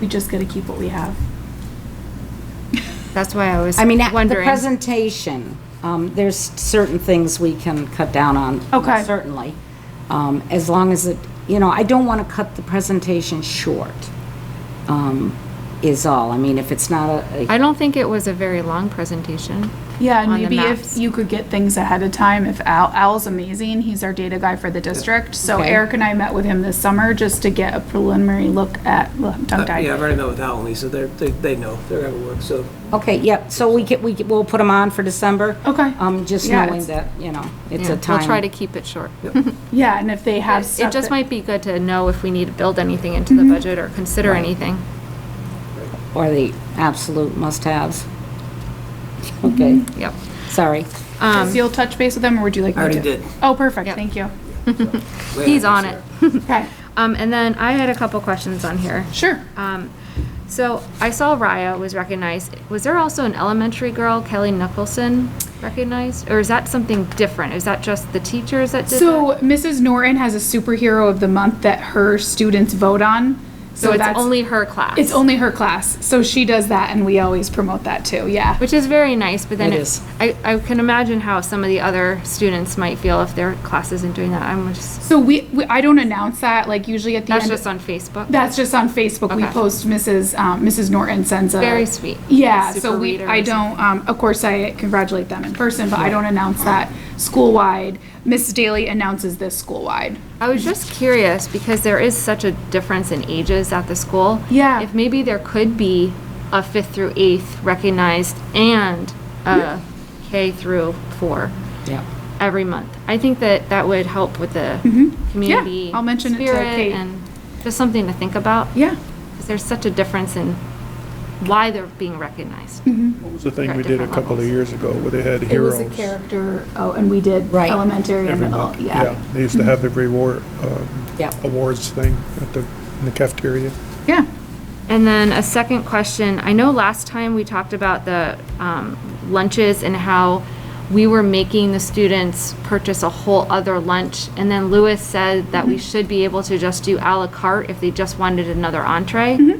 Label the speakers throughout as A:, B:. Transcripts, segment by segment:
A: We just gotta keep what we have.
B: That's why I was
C: I mean, at the
B: wondering.
C: presentation, um, there's certain things we can cut down on.
A: Okay.
C: Certainly. Um, as long as it, you know, I don't want to cut the presentation short, um, is all. I mean, if it's not a,
B: I don't think it was a very long presentation.
A: Yeah, and
B: on the
A: maybe if
B: maps.
A: you could get things ahead of time, if Al, Al's amazing, he's our data guy for the district. So
C: Okay.
A: Eric and I met with him this summer just to get a preliminary look at, well, I'm
D: Uh,
A: tongue-tied.
D: Yeah, I've already met with Al and Lisa, they're, they, they know, they're gonna work, so.
C: okay, yep, so we get, we, get- we'll put them on for December.
A: Okay.
C: Um, just
A: Yeah,
C: knowing
A: it's-
C: that, you know, it's
B: Yeah,
C: a time.
B: We'll try to keep it short.
A: Yeah, and if they have stuff.
B: It just
A: that- Mm-hmm.
B: might be good to know if we need to build anything into the budget or consider anything.
C: Or the absolute must-haves. Okay,
B: Yep.
C: sorry.
B: um,
A: So you'll touch base with them, or would you like?
D: I
A: me
D: already
A: to?
D: did.
A: Oh, perfect,
B: Yep.
A: thank you.
B: He's on it.
A: Okay,
B: Um, and then I had a couple questions on here.
A: sure.
B: Um, so I saw Raya was recognized. Was there also an elementary girl, Kelly Nicholson, recognized? Or is that something different? Is that just the teachers that did that?
A: So Mrs. Norton has a superhero of the month that her students vote on.
B: So it's
A: that's-
B: only her class?
A: It's only her class, so she does that, and we always promote that too, yeah.
B: Which is very nice, but then
C: It
B: it's,
C: is.
B: I, I can imagine how some of the other students might feel if their class isn't doing that. I'm just,
A: So we, we- I don't announce that, like usually at the
B: that's
A: end.
B: just on Facebook.
A: That's just on Facebook. We
B: Okay.
A: post Mrs., um, Mrs. Norton sends a.
B: Very sweet.
A: Yeah,
B: Super
A: so we,
B: reader
A: I
B: or something.
A: don't, um, of course, I congratulate them in person, but I don't announce that school-wide. Mrs. Daly announces this school-wide.
B: I was just curious because there is such a difference in ages at the school.
A: Yeah.
B: If maybe there could be a fifth through eighth recognized and a K through four
C: Yeah.
B: every month. I think that that would help with the community
A: Mm-hmm. I'll mention it to
B: spirit
A: Kate.
B: and just something to think about.
A: Yeah.
B: Because there's such a difference in why they're being recognized.
E: It was the thing
B: At
E: we did a
B: different
E: couple of
B: levels.
E: years ago where they had
A: It was
E: heroes.
A: a character, oh, and we did
C: Right.
A: elementary and
E: every
A: middle,
E: month.
A: yeah.
E: They used to have every war, um,
C: Yeah.
E: awards thing at the, in the cafeteria.
A: Yeah.
B: And then a second question, I know last time we talked about the um, lunches and how we were making the students purchase a whole other lunch. And then Lewis said that we should be able to just do à la carte if they just wanted another entree.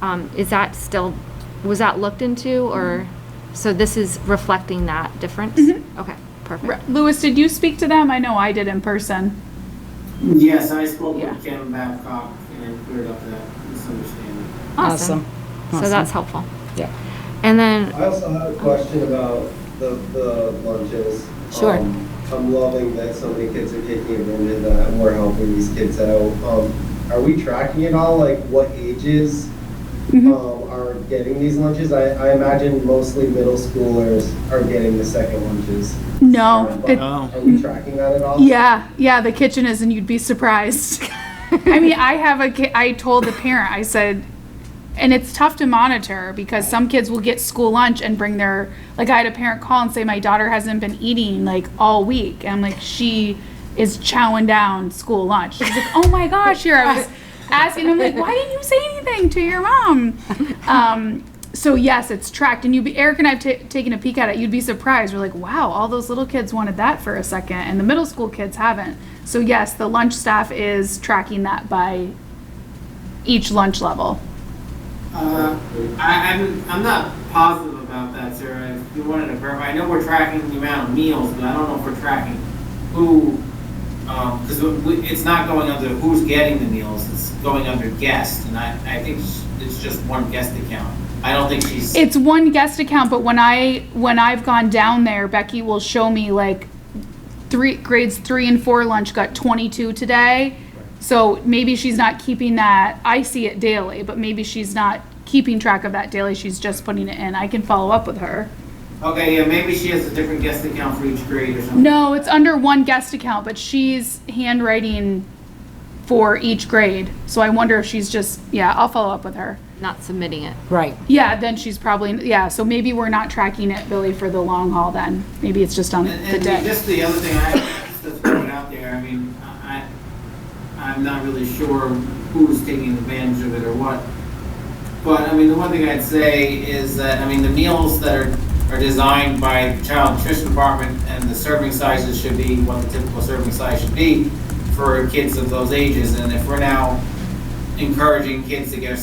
B: Um, Is that still, was that looked into or, so this is reflecting that difference? Okay,
A: Re-
B: perfect.
A: Louis, did you speak to them? I know I did in person.
F: Yes, I spoke
A: Yeah.
F: with Kim Babcock and cleared up that misunderstanding.
C: Awesome.
B: So that's helpful.
C: Yeah.
B: And then,
G: I also have a question about the, the lunches.
C: Sure.
G: Um, I'm loving that so many kids are taking advantage of that and we're helping these kids out. Um, are we tracking at all, like what ages, um,
A: Mm-hmm.
G: are getting these lunches? I, I imagine mostly middle schoolers are getting the second lunches.
A: No. it-
G: Are we tracking that at all?
A: Yeah, yeah, the kitchen is, and you'd be surprised. I mean, I have a ki- I told the parent, I said, and it's tough to monitor because some kids will get school lunch and bring their, like, I had a parent call and say, my daughter hasn't been eating like all week. And I'm like, she is chowing down school lunch. She's like, oh my gosh, here I was asking. I'm like, why didn't you say anything to your mom? Um, so yes, it's tracked, and you, be Eric and I've ta taken a peek at it. You'd be surprised. We're like, wow, all those little kids wanted that for a second, and the middle school kids haven't. So yes, the lunch staff is tracking that by each lunch level.
F: Uh, I, I'm, I'm not positive about that, Sarah. If you wanted to verify, I know we're tracking the amount of meals, but I don't know if we're tracking who, um, because it's not going under who's getting the meals, it's going under guest, and I, I think sh- it's just one guest account. I don't think she's.
A: It's one guest account, but when I when I've gone down there, Becky will show me like three grades three and four lunch got 22 today. So maybe she's not keeping that. I see it daily, but maybe she's not keeping track of that daily. She's just putting it in. I can follow up with her.
F: Okay, yeah, maybe she has a different guest account for each grade or something.
A: No, it's under one guest account, but she's handwriting for each grade. So I wonder if she's just, yeah, I'll follow up with her.
B: not submitting it.
C: Right.
A: Yeah, then she's probably, yeah, so maybe we're not tracking it, Billy, for the long haul then. Maybe it's just on
F: And-
A: the
F: And
A: day.
F: just the other thing I, just to throw it out there, I mean, I, I'm not really sure who's taking advantage of it or what. But, I mean, the one thing I'd say is that, I mean, the meals that are, are designed by the Child Nutrition Department and the serving sizes should be what the typical serving size should be for kids of those ages. And if we're now encouraging kids to get a